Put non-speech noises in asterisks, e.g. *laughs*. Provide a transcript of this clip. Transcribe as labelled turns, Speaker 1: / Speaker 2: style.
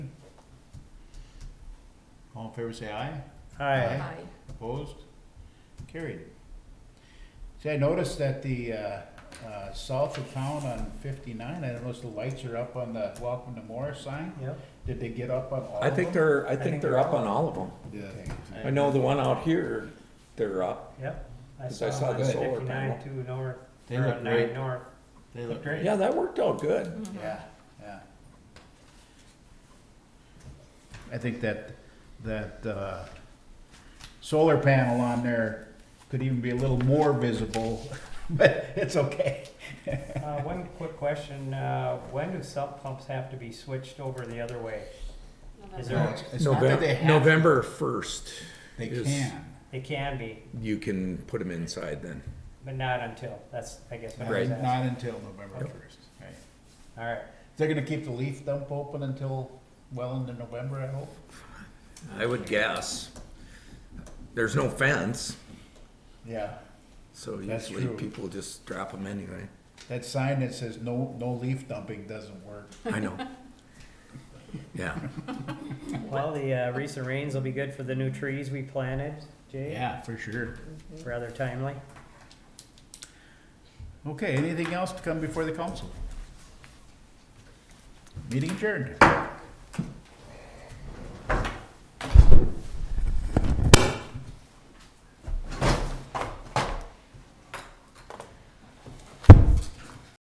Speaker 1: All in favor, say aye.
Speaker 2: Aye.
Speaker 3: Aye.
Speaker 1: Opposed? Carried. See, I noticed that the, uh, uh, south of town on fifty-nine, I noticed the lights are up on the Welcome to Morris sign.
Speaker 2: Yep.
Speaker 1: Did they get up on all of
Speaker 4: I
Speaker 1: them?
Speaker 4: think they're, I think they're up on all of them. I know the one out here, they're up.
Speaker 2: Yep.
Speaker 4: 'Cause I saw
Speaker 2: one
Speaker 4: the
Speaker 2: on
Speaker 4: solar
Speaker 2: 59
Speaker 4: panel.
Speaker 2: Two north,
Speaker 1: They
Speaker 2: or
Speaker 1: look
Speaker 2: nine
Speaker 1: great.
Speaker 2: north.
Speaker 1: They look
Speaker 2: Great.
Speaker 1: great.
Speaker 4: Yeah, that worked out good.
Speaker 1: Yeah, yeah. I think that, that, uh, solar panel on there could even be a little more visible, *laughs* but it's okay.
Speaker 2: Uh, one quick question, uh, when do sump pumps have to be switched over the other way? Is there,
Speaker 1: It's not that they have to.
Speaker 4: November first.
Speaker 1: They can.
Speaker 2: it can be,
Speaker 4: You can put them inside then.
Speaker 2: but not until, that's, I guess what I
Speaker 4: Right.
Speaker 2: was asking.
Speaker 1: Not until November first, right.
Speaker 2: Alright,
Speaker 1: They're gonna keep the leaf dump open until well into November, I hope.
Speaker 4: I would guess. There's no fence,
Speaker 1: Yeah.
Speaker 4: so
Speaker 1: That's
Speaker 4: usually
Speaker 1: true.
Speaker 4: people just drop them anyway.
Speaker 1: That sign that says no, no leaf dumping doesn't work. *laughs*
Speaker 4: I know. Yeah,
Speaker 2: well, the, uh, recent rains will be good for the new trees we planted, Jay,
Speaker 1: Yeah, for sure.
Speaker 2: rather timely.
Speaker 1: Okay, anything else to come before the council? Meeting adjourned.